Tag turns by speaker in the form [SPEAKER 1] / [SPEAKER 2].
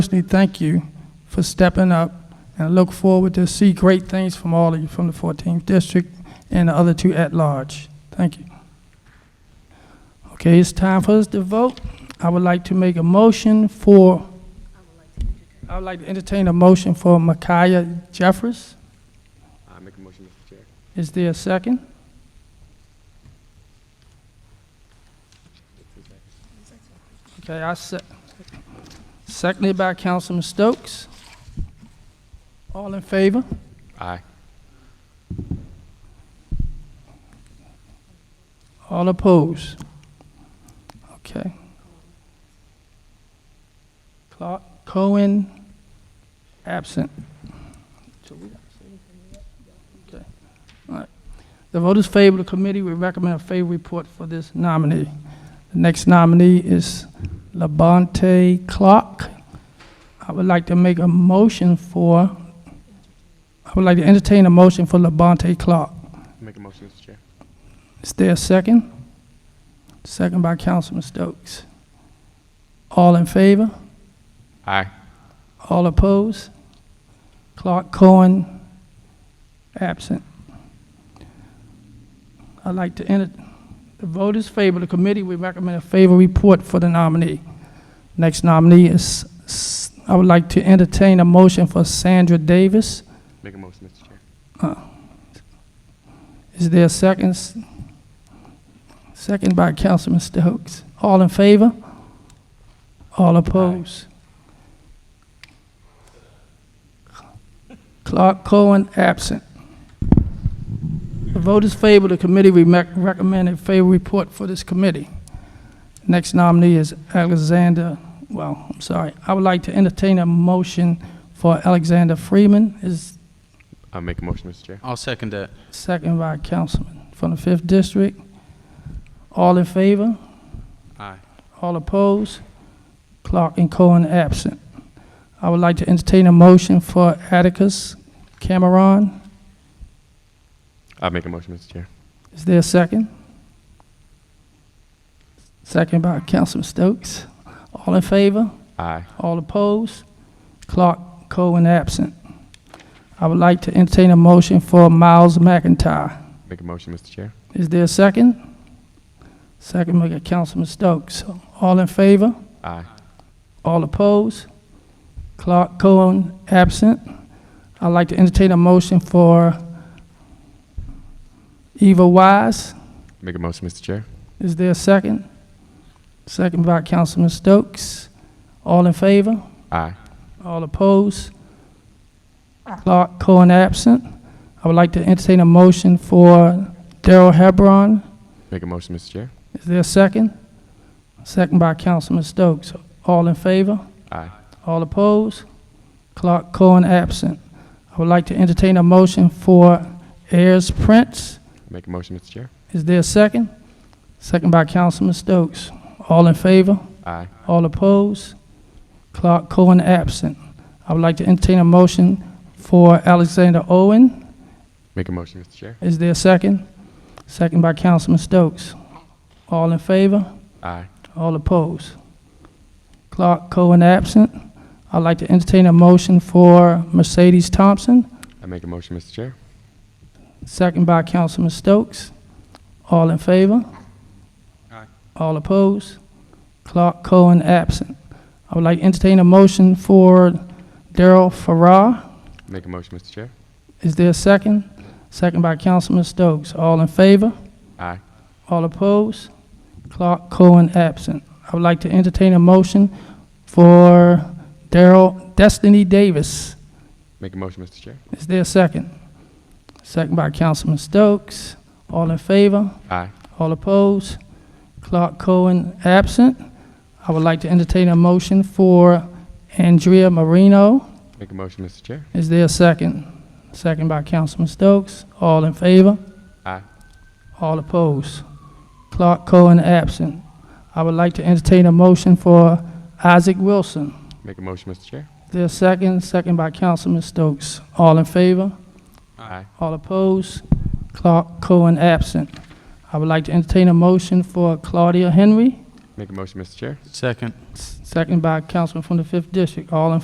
[SPEAKER 1] personally thank you for stepping up and I look forward to see great things from all of you from the 14th district and the other two at large. Thank you. Okay, it's time for us to vote. I would like to make a motion for, I would like to entertain a motion for Micaiah Jeffers.
[SPEAKER 2] I make a motion, Mr. Chair.
[SPEAKER 1] Is there a second? Okay, I se- seconded by Councilman Stokes. All in favor?
[SPEAKER 2] Aye.
[SPEAKER 1] All opposed? Okay. Clark Cohen, absent. Okay. All right. The vote is favorable. The committee will recommend a favorable report for this nominee. The next nominee is Labonte Clark. I would like to make a motion for, I would like to entertain a motion for Labonte Clark.
[SPEAKER 2] Make a motion, Mr. Chair.
[SPEAKER 1] Is there a second? Second by Councilman Stokes. All in favor?
[SPEAKER 2] Aye.
[SPEAKER 1] All opposed? Clark Cohen, absent. I'd like to enter, the vote is favorable. The committee will recommend a favorable report for the nominee. Next nominee is, S- I would like to entertain a motion for Sandra Davis.
[SPEAKER 2] Make a motion, Mr. Chair.
[SPEAKER 1] Is there a second? Second by Councilman Stokes. All in favor? All opposed? Clark Cohen, absent. The vote is favorable. The committee we mec- recommend a favorable report for this committee. Next nominee is Alexander, well, I'm sorry. I would like to entertain a motion for Alexander Freeman. Is
[SPEAKER 2] I make a motion, Mr. Chair.
[SPEAKER 3] I'll second that.
[SPEAKER 1] Second by Councilman from the Fifth District. All in favor?
[SPEAKER 3] Aye.
[SPEAKER 1] All opposed? Clark and Cohen absent. I would like to entertain a motion for Atticus Cameron.
[SPEAKER 2] I make a motion, Mr. Chair.
[SPEAKER 1] Is there a second? Second by Councilman Stokes. All in favor?
[SPEAKER 2] Aye.
[SPEAKER 1] All opposed? Clark Cohen absent. I would like to entertain a motion for Miles McIntyre.
[SPEAKER 2] Make a motion, Mr. Chair.
[SPEAKER 1] Is there a second? Second by Councilman Stokes. All in favor?
[SPEAKER 2] Aye.
[SPEAKER 1] All opposed? Clark Cohen absent. I'd like to entertain a motion for Eva Wise.
[SPEAKER 2] Make a motion, Mr. Chair.
[SPEAKER 1] Is there a second? Second by Councilman Stokes. All in favor?
[SPEAKER 2] Aye.
[SPEAKER 1] All opposed? Clark Cohen absent. I would like to entertain a motion for Daryl Hebron.
[SPEAKER 2] Make a motion, Mr. Chair.
[SPEAKER 1] Is there a second? Second by Councilman Stokes. All in favor?
[SPEAKER 2] Aye.
[SPEAKER 1] All opposed? Clark Cohen absent. I would like to entertain a motion for Ayers Prince.
[SPEAKER 2] Make a motion, Mr. Chair.
[SPEAKER 1] Is there a second? Second by Councilman Stokes. All in favor?
[SPEAKER 2] Aye.
[SPEAKER 1] All opposed? Clark Cohen absent. I would like to entertain a motion for Alexander Owen.
[SPEAKER 2] Make a motion, Mr. Chair.
[SPEAKER 1] Is there a second? Second by Councilman Stokes. All in favor?
[SPEAKER 2] Aye.
[SPEAKER 1] All opposed? Clark Cohen absent. I'd like to entertain a motion for Mercedes Thompson,
[SPEAKER 2] I make a motion, Mr. Chair.
[SPEAKER 1] second by Councilman Stokes. All in favor?
[SPEAKER 3] Aye.
[SPEAKER 1] All opposed? Clark Cohen absent. I would like to entertain a motion for Daryl Farrar.
[SPEAKER 2] Make a motion, Mr. Chair.
[SPEAKER 1] Is there a second? Second by Councilman Stokes. All in favor?
[SPEAKER 2] Aye.
[SPEAKER 1] All opposed? Clark Cohen absent. I would like to entertain a motion for Daryl Destiny Davis.
[SPEAKER 2] Make a motion, Mr. Chair.
[SPEAKER 1] Is there a second? Second by Councilman Stokes. All in favor?
[SPEAKER 2] Aye.
[SPEAKER 1] All opposed? Clark Cohen absent. I would like to entertain a motion for Andrea Marino.
[SPEAKER 2] Make a motion, Mr. Chair.
[SPEAKER 1] Is there a second? Second by Councilman Stokes. All in favor?
[SPEAKER 2] Aye.
[SPEAKER 1] All opposed. Clark Cohen absent. I would like to entertain a motion for Isaac Wilson.
[SPEAKER 2] Make a motion, Mr. Chair.
[SPEAKER 1] There's second, second by Councilman Stokes. All in favor?
[SPEAKER 2] Aye.
[SPEAKER 1] All opposed? Clark Cohen absent. I would like to entertain a motion for Claudia Henry.
[SPEAKER 2] Make a motion, Mr. Chair.
[SPEAKER 3] Second.
[SPEAKER 1] S- Second by a councilman from the fifth district. All in